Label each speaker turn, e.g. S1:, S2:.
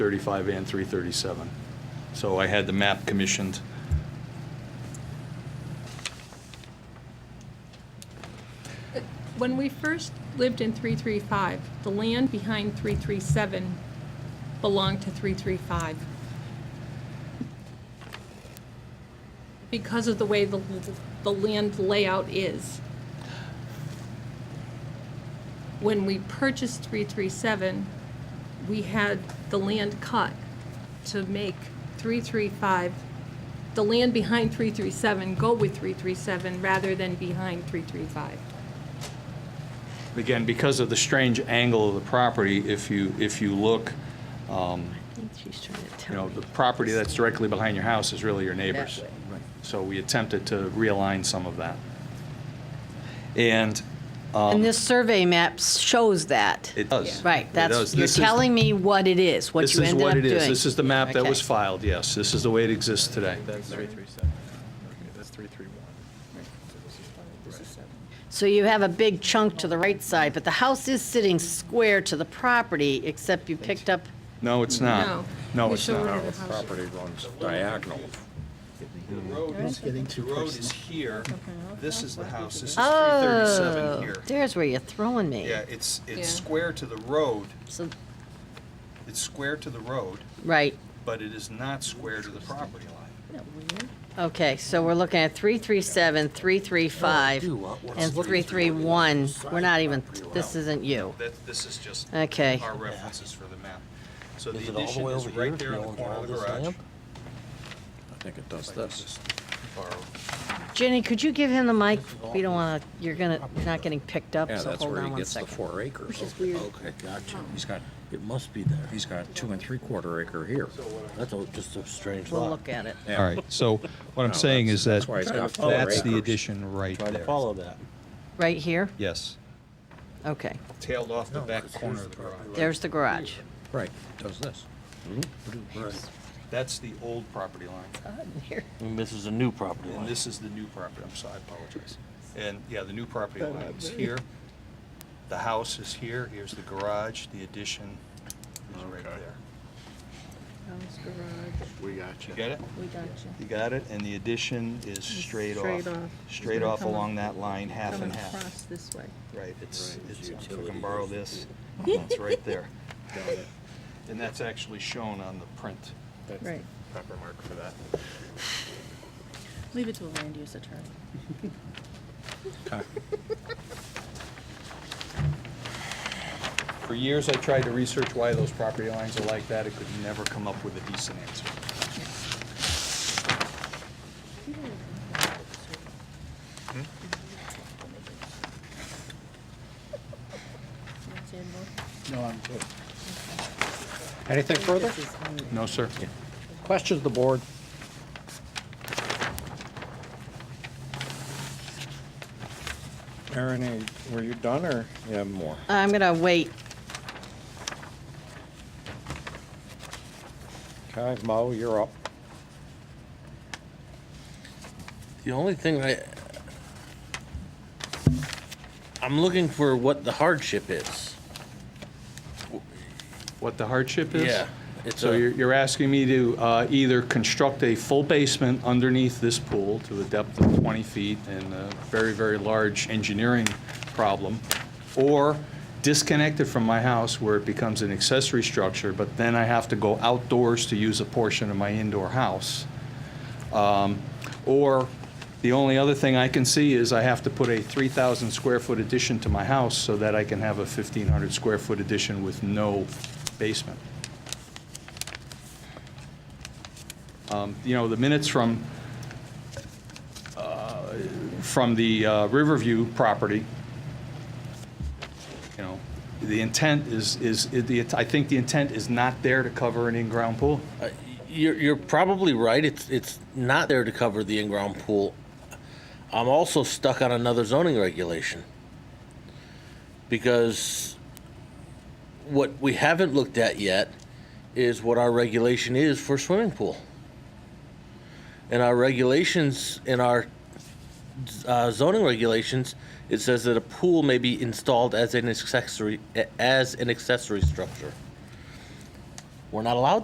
S1: 35 and 337. So I had the map commissioned.
S2: When we first lived in 335, the land behind 337 belonged to 335. Because of the way the, the land layout is. When we purchased 337, we had the land cut to make 335, the land behind 337 go with 337 rather than behind 335.
S1: Again, because of the strange angle of the property, if you, if you look, um,
S3: I think she's trying to
S1: you
S3: tell
S1: know,
S3: me.
S1: the property that's directly behind your house is really your neighbor's.
S3: way.
S1: So we attempted to realign some of that. And um,
S4: And this survey map shows that.
S1: it does.
S4: Right,
S1: It
S4: that's,
S1: does.
S4: you're
S1: This is-
S4: telling me what it is, what
S1: This
S4: you
S1: is
S4: ended up
S1: what it
S4: doing.
S1: is. This is the map that
S4: Okay.
S1: was filed, yes. This is the way it exists today.
S5: That's three three seven. Okay, that's three three one.
S4: So you have a big chunk to the right side, but the house is sitting square to the property, except you picked up,
S1: No, it's not.
S2: No.
S1: No,
S2: You
S1: it's
S2: show
S1: not.
S2: where
S6: The
S2: the house-
S6: property runs diagonal.
S1: The road is, the road is here. This is the house. This is 337
S4: oh,
S1: here.
S4: there's where you're throwing me.
S5: Yeah, it's, it's
S2: Yeah.
S5: square to the road,
S4: So,
S5: it's square to the road,
S4: right,
S5: but it is not square to the property line.
S4: okay, so we're looking at 337, 335, and 331. We're not even, this isn't you.
S5: That, this is just
S4: Okay.
S5: our references for the map. So the
S7: Is it all the
S5: addition
S7: way
S5: is
S7: over
S5: right
S7: here?
S5: there in the
S7: No,
S5: corner
S7: all
S5: of the
S7: this
S5: garage.
S7: lamp?
S6: I think it does this.
S4: Jenny, could you give him the mic? We don't want to, you're gonna, not getting picked up,
S6: Yeah,
S4: so
S6: that's
S4: hold
S6: where he
S4: on one
S6: gets the
S4: second.
S6: four acres.
S7: Okay, gotcha.
S6: He's got,
S7: It must be there.
S6: he's got two and three quarter acre here.
S7: That's a- just a strange
S4: We'll
S7: lot.
S4: look at it.
S1: All right, so what I'm
S6: No,
S1: saying
S6: that's-
S1: is that,
S6: that's why it's got four
S1: that's the
S6: acres.
S1: addition right
S7: Try to
S1: there.
S7: follow that.
S4: Right here?
S1: Yes.
S4: Okay,
S5: Tailed off the
S7: No,
S5: back
S7: because
S5: corner
S7: here's
S5: of the
S7: the property
S5: garage.
S4: there's the garage.
S6: Right, does this.
S7: Right.
S1: That's the old property line,
S7: And this is a new property
S5: And
S7: line.
S5: this is the new property, I'm sorry, I apologize. And, yeah, the new property line is here, the house is here, here's the garage, the addition is right there.
S8: We got
S5: You
S8: you.
S5: get it?
S3: We got you.
S5: You got it, and the addition is straight off.
S3: straight off. It's
S5: Straight
S3: gonna
S5: off
S3: come
S5: along
S3: up-
S5: that line, half
S3: Come
S5: and half.
S3: across this way.
S5: Right, it's,
S7: Right,
S5: it's,
S7: it's
S5: if I
S7: utility
S5: can borrow this, it's right there. And that's actually shown on the print.
S3: Right.
S5: Proper mark for that.
S3: Leave it to a land use attorney.
S1: For years, I tried to research why those property lines are like that. It could never come up with a decent answer.
S8: No, I'm good.
S6: Anything further?
S1: No, sir.
S6: Questions, of the board?
S5: Aaron, were you done, or?
S6: Yeah, more.
S4: I'm gonna wait.
S6: Okay, Mo, you're up.
S7: The only thing I, I'm looking for what the hardship is.
S1: What the hardship is?
S7: Yeah. It's
S1: So
S7: a-
S1: you're, you're asking me to uh, either construct a full basement underneath this pool to a depth of 20 feet and a very, very large engineering problem, or disconnect it from my house where it becomes an accessory structure, but then I have to go outdoors to use a portion of my indoor house. Um, Or, the only other thing I can see is I have to put a 3,000 square foot addition to my house so that I can have a 1,500 square foot addition with no basement. Um, You know, the minutes from, uh, from the uh, Riverview property, you know, the intent is, is, the I think the intent is not there to cover an in-ground pool.
S7: You're, you're probably right. It's, it's not there to cover the in-ground pool. I'm also stuck on another zoning regulation. Because what we haven't looked at yet is what our regulation is for swimming pool. And our regulations, in our uh, zoning regulations, it says that a pool may be installed as an accessory, as an accessory structure. We're not allowed